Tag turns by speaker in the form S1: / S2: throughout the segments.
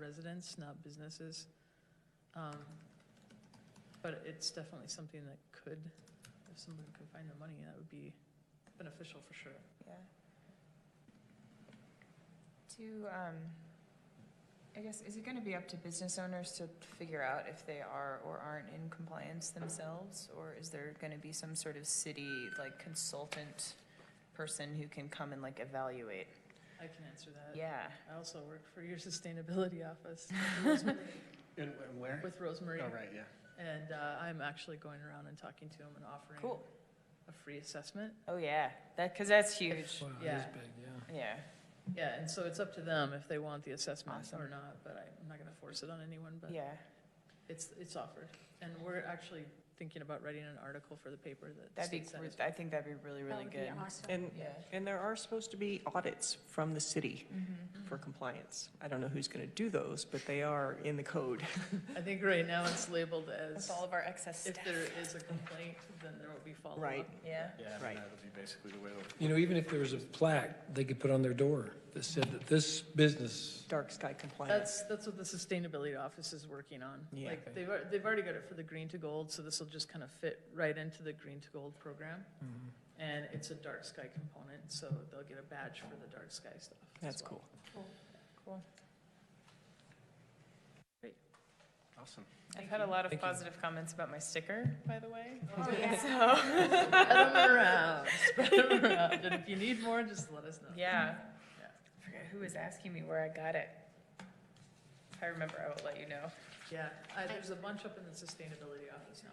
S1: residents, not businesses. Um, But it's definitely something that could, if someone could find the money, that would be beneficial for sure.
S2: Yeah. Do, um, I guess, is it gonna be up to business owners to figure out if they are or aren't in compliance themselves? Or is there gonna be some sort of city, like consultant person who can come and like evaluate?
S1: I can answer that.
S2: Yeah,
S1: I also work for your sustainability office with Rosemary-
S3: And and where?
S1: with Rosemary.
S3: Oh, right, yeah.
S1: And uh, I'm actually going around and talking to them and offering
S2: cool.
S1: a free assessment.
S2: Oh, yeah, that, cause that's huge,
S4: Wow, it is
S1: Yeah.
S4: big, yeah.
S2: yeah.
S1: Yeah, and so it's up to them if they want the assessment or
S2: Awesome.
S1: not, but I'm not going to force it on anyone, but
S2: Yeah,
S1: it's, it's offered. And we're actually thinking about writing an article for the paper that
S2: that'd be,
S1: states that
S2: gr-
S1: as
S2: I think that'd be really, really good.
S5: And,
S2: Yeah.
S5: and there are supposed to be audits from the city for compliance. I don't know who's going to do those, but they are in the code.
S1: I think right now it's labeled as,
S2: With all of our excess
S1: if
S2: stuff.
S1: there is a complaint, then there will be follow-up.
S5: Right.
S2: Yeah,
S3: Yeah, I mean,
S5: Right.
S3: that'll be basically the way it'll
S4: You know, even if there was a plaque they could put on their door that said that this business,
S5: Dark sky compliance.
S1: That's, that's what the sustainability office is working on.
S5: Yeah.
S1: Like, they've, al- they've already got it for the green to gold, so this will just kind of fit right into the green to gold program.
S5: Mm-hmm.
S1: And it's a dark sky component, so they'll get a badge for the dark sky stuff. as
S5: That's
S1: well.
S5: cool.
S2: cool.
S3: Awesome.
S2: I've had a lot of
S4: Thank you.
S2: positive comments about my sticker, by the way.
S6: Oh,
S1: Spread 'em around, spread 'em around, and if you need more, just let us know.
S2: Yeah.
S1: Yeah.
S2: I forget who was asking me where I got it. If I remember, I will let you know.
S1: Yeah, I- there's a bunch up in the sustainability office now.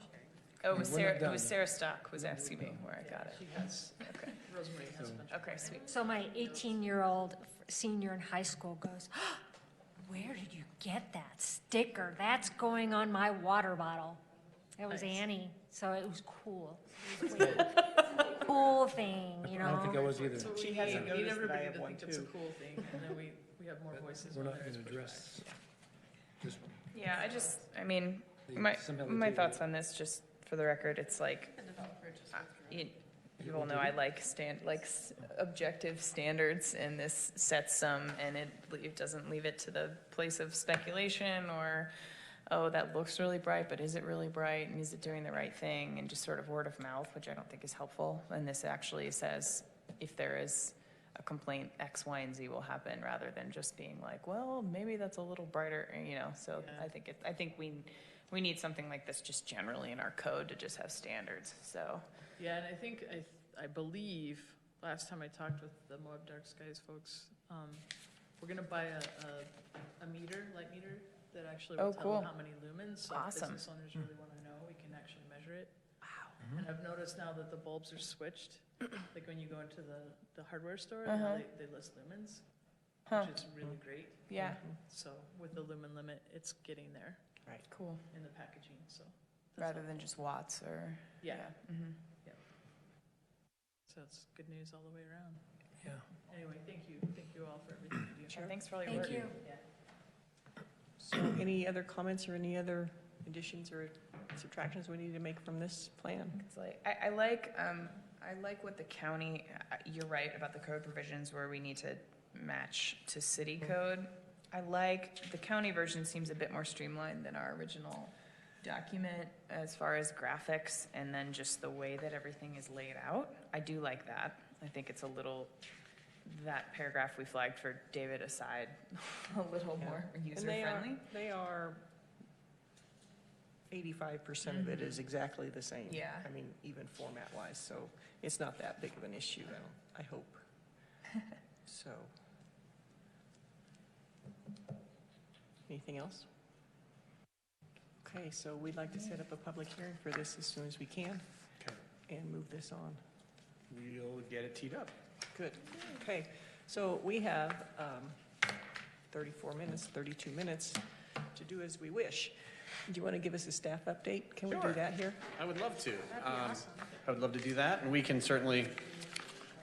S2: Oh, it was
S4: We're not
S2: Sarah, it was
S4: done.
S2: Sarah Stock was asking me where I got it.
S1: She has,
S2: Okay.
S1: Rosemary has a
S4: So-
S1: bunch.
S2: Okay, sweet.
S6: So my 18-year-old senior in high school goes, "Oh, where did you get that sticker? That's going on my water bottle. It was
S1: Nice.
S6: Annie, so it was cool. Cool thing, you
S4: I don't think I
S6: know?
S4: was either.
S1: So
S5: She
S1: we
S5: hasn't
S1: need-
S5: noticed
S1: need
S5: that I
S1: everybody
S5: have
S1: to
S5: one
S1: think it's a
S5: too.
S1: cool thing, and then we, we have more voices
S4: We're
S1: when
S4: not
S1: there is
S4: going
S1: pushback.
S4: to address.
S2: Yeah, I just, I mean,
S4: the-
S2: my,
S4: somehow the
S2: my
S4: table.
S2: thoughts on this, just for the record, it's like,
S1: Ah.
S2: I- you, you all know I like stand, like s- objective standards and this sets some and it, it doesn't leave it to the place of speculation or, oh, that looks really bright, but is it really bright and is it doing the right thing? And just sort of word of mouth, which I don't think is helpful. And this actually says if there is a complaint, X, Y, and Z will happen rather than just being like, well, maybe that's a little brighter, you know? So
S1: Yeah.
S2: I think it, I think we, we need something like this just generally in our code to just have standards, so.
S1: Yeah, and I think, I, th- I believe, last time I talked with the Moab Dark Skies folks, um, we're gonna buy a, a, a meter, light meter, that actually will
S2: Oh,
S1: tell
S2: cool.
S1: how many lumens. So if
S2: Awesome.
S1: Business owners
S4: Hmm.
S1: really wanna know, we can actually measure it. Wow. And I've noticed now that the bulbs are switched, like when you go into the, the hardware store, now
S2: Uh-huh.
S1: they, they list lumens,
S2: Huh,
S1: which is really great.
S2: yeah,
S1: So with the lumen limit, it's getting there
S2: cool,
S1: in the packaging, so. that's
S2: rather
S1: all.
S2: than just watts or, yeah.
S1: Yeah,
S2: mhm.
S1: so it's good news all the way around.
S4: Yeah.
S1: Anyway, thank you, thank you all for everything you do.
S2: And Thanks for all your work.
S6: Thank you.
S1: Yeah.
S5: So any other comments or any other additions or subtractions we need to make from this plan?
S2: It's like, I, I like, um, I like what the county, I- you're right about the code provisions where we need to match to city code. I like, the county version seems a bit more streamlined than our original document as far as graphics and then just the way that everything is laid out. I do like that. I think it's a little, that paragraph we flagged for David aside, a little
S5: Yeah.
S2: more user
S5: And they are,
S2: friendly.
S5: they are, eighty-five percent of it is exactly the same.
S2: Yeah.
S5: I mean, even format-wise, so it's not that big of an issue, I don't- I hope. So. Anything else? Okay, so we'd like to set up a public hearing for this as soon as we can
S3: Okay.
S5: and move this on.
S3: We'll get it teed up.
S5: Good, okay. So we have um, 34 minutes, 32 minutes to do as we wish. Do you want to give us a staff update? Can we do
S3: Sure.
S5: that here?
S3: I would love to. Um, I would love to do that, and we can certainly,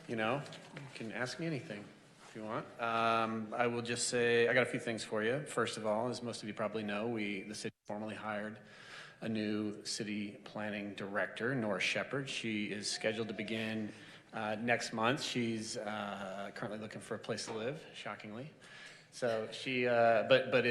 S3: you know, you can ask me anything if you want. Um, I will just say, I got a few things for you. First of all, as most of you probably know, we, the city formally hired a new city planning director, Nora Shepherd. She is scheduled to begin uh, next month. She's uh, currently looking for a place to live, shockingly. So she, uh, but, but